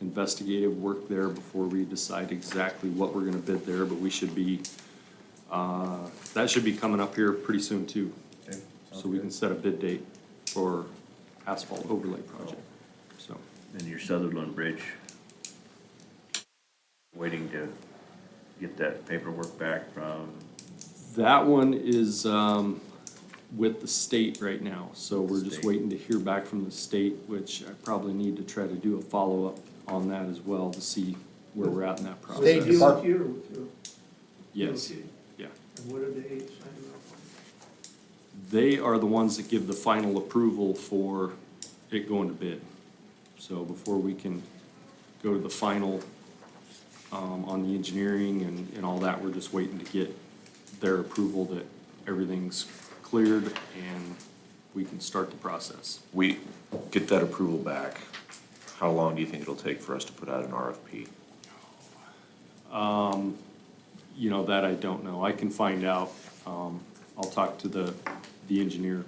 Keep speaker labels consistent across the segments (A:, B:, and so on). A: investigative work there before we decide exactly what we're gonna bid there, but we should be, uh, that should be coming up here pretty soon too.
B: Okay,
A: So we can set a bid date for asphalt overlay project, so.
C: And your Sutherland Bridge, waiting to get that paperwork back from,
A: That one is, um, with the state right now, so we're just
C: State.
A: waiting to hear back from the state, which I probably need to try to do a follow-up on that as well to see where we're at in that process.
D: They deal with you, too.
A: Yes, yeah.
D: And what did they sign up for?
A: They are the ones that give the final approval for it going to bid. So before we can go to the final, um, on the engineering and, and all that, we're just waiting to get their approval that everything's cleared and we can start the process.
E: We get that approval back, how long do you think it'll take for us to put out an RFP?
A: You know, that I don't know. I can find out. Um, I'll talk to the, the engineer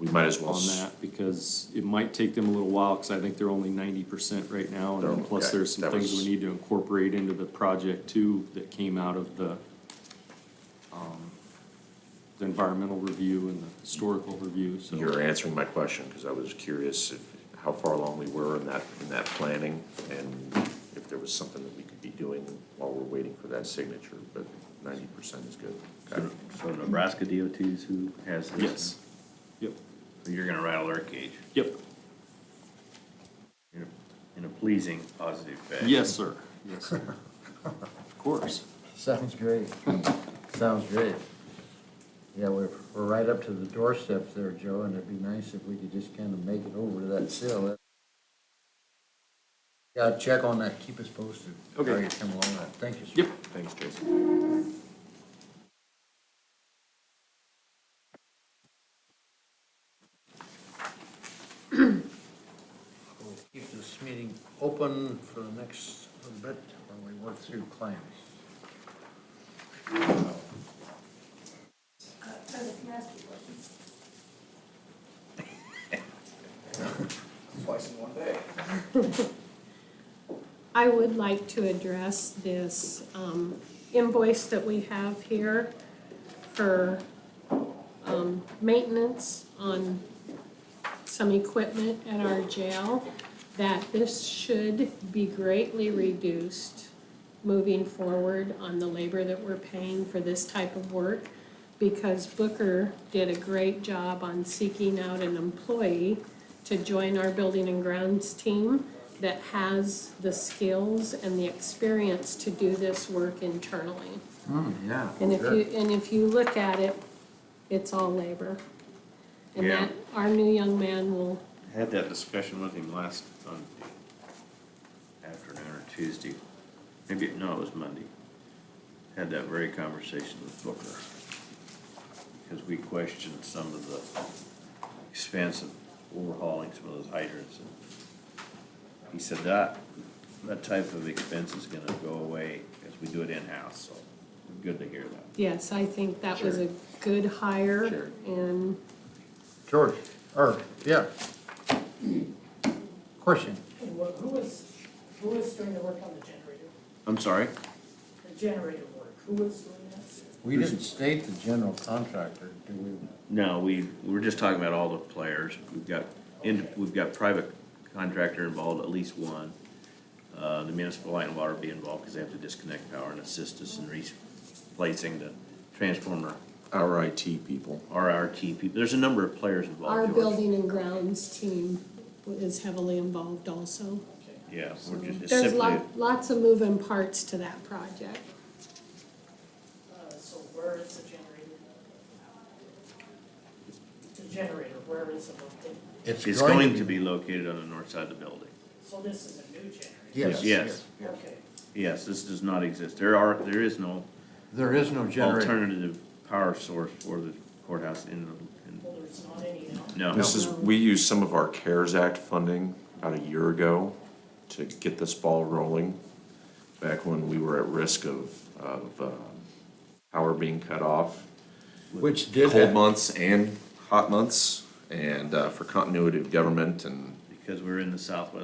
E: We might as well,
A: on
E: s-
A: that because it might take them a little while, because I think they're only ninety percent right now. And then
E: They're-
A: plus
E: Oh, okay,
A: there's some
E: that
A: things we
E: was-
A: need to incorporate into the project too that came out of the, um, the environmental review and the historical review, so.
E: you're answering my question, because I was curious if, how far along we were in that, in that planning, and if there was something that we could be doing while we're waiting for that signature, but ninety percent is good. Okay.
C: so Nebraska DOT's who has this?
A: Yes. Yep,
C: So You're gonna rattle their cage
A: yep.
C: in a- in a pleasing, positive fashion.
A: Yes, sir. Yes, sir. Of course.
B: Sounds great. Sounds great. Yeah, we're, we're right up to the doorsteps there, Joe, and it'd be nice if we could just kind of make it over to that sill. Yeah, check on that, keep us posted.
A: Okay.
B: How you come along with that, thank you, sir.
A: Yep.
E: Thanks, Jason.
B: We'll Keep this meeting open for the next little bit while we work through claims.
F: Uh, President, can I ask you a question?
G: I would like to address this um, invoice that we have here for um, maintenance on some equipment at our jail, that this should be greatly reduced moving forward on the labor that we're paying for this type of work, because Booker did a great job on seeking out an employee to join our building and grounds team that has the skills and the experience to do this work internally.
B: Hmm, yeah.
G: And if
B: sure.
G: you, and if you look at it, it's all labor. And
C: Yeah.
G: that, our new young man will,
C: Had that discussion with him last Monday afternoon or Tuesday, maybe, no, it was Monday. Had that very conversation with Booker. Because we questioned some of the expense of overhauling some of those hydrants. and He said that, that type of expense is gonna go away as we do it in-house, so good to hear that.
G: yes, I think that was
C: Sure.
G: a good
C: Sure.
G: hire and
B: George, or, yeah. Question?
H: And what, who was, who was doing the work on the generator?
C: I'm sorry?
H: The generator work, who was doing that?
B: We didn't state the general contractor, do we?
C: No, we, we were just talking about all the players. We've got, and we've got private contractor involved, at least one. Uh, the municipal light and water be involved because they have to disconnect power and assist us in replacing the transformer,
E: Our IT people.
C: RRT people. There's a number of players involved.
G: our
C: George.
G: building and grounds team is heavily involved also.
C: Yeah, we're just, it's
G: There's
C: simply,
G: lot, lots of moving parts to that project.
H: Uh, so where is the generator? The generator, where is it located?
C: it's going to be located on the north side of the building.
H: So this is a new generator?
B: Yes, yes.
C: Yes.
B: yes.
H: Okay,
C: Yes, this does not exist. There are, there is no
B: There is no generator.
C: alternative power source for the courthouse in the, in,
H: well, there's not any now.
C: no.
E: This is, we used some of our CARES Act funding about a year ago to get this ball rolling, back when we were at risk of, of um, power being cut off.
B: Which did
E: Cold
B: have,
E: months and hot months, and uh, for continuity of government and
C: Because we're in the southwest